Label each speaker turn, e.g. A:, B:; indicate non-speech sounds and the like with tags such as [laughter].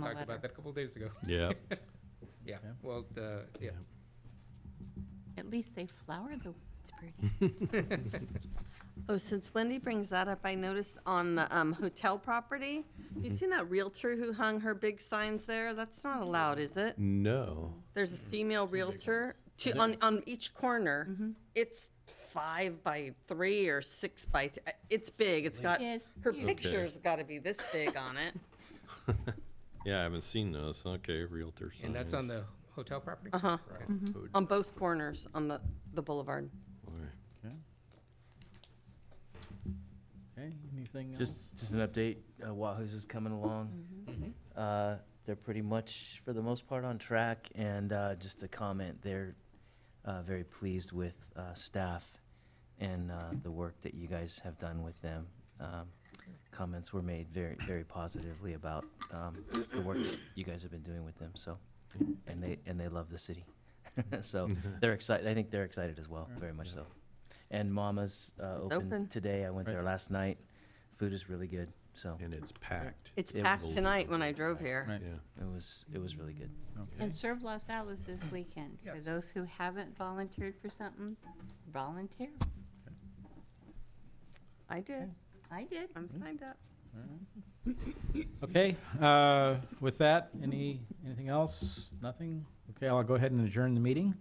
A: the
B: talked about
A: letter.
B: that a couple days ago. [laughs]
C: Yeah.
B: Yeah,
C: Yeah.
B: well, the, yeah.
A: At least they flowered the, it's pretty.
D: Oh, since Wendy brings that up, I noticed on the um, hotel property, have you seen that realtor who hung her big signs there? That's not allowed, is it?
C: Mm-hmm. No.
D: There's a female realtor, two, on, on each corner. It's five by three or six by, t- uh, it's big, it's
A: [laughs]
D: got,
A: Yes,
D: her
A: huge.
D: picture's gotta be this big on it.
C: Yeah, I haven't seen those. Okay, realtor signs.
B: And that's on the hotel property? Uh-huh.
D: On both corners on the, the boulevard.
C: All right.
E: Okay. Okay, anything else?
F: Just, just an update, uh, Wahoo's is coming along.
A: Mm-hmm.
F: Uh, They're pretty much, for the most part, on track, and uh, just a comment, they're uh, very pleased with uh, staff and uh, the work that you guys have done with them. Um, Comments were made very, very positively about um, the work that you guys have been doing with them, so, and they, and they love the city. [laughs] So [laughs] they're excited, I think they're excited as well, very much so. And Mama's uh,
D: open.
F: opened today, I went there
E: Right.
F: last night. Food is really good, so
C: And it's packed.
D: It's
F: It
D: packed
C: was-
D: tonight when I drove here.
E: Right.
C: Yeah.
F: it was, it was really good.
A: And serve Los Alos this weekend. For
B: Yes.
A: those who haven't volunteered for something, volunteer.
D: I did,
A: I did.
D: I'm signed up.
E: Okay, uh, with that, any, anything else? Nothing? Okay, I'll go ahead and adjourn the meeting.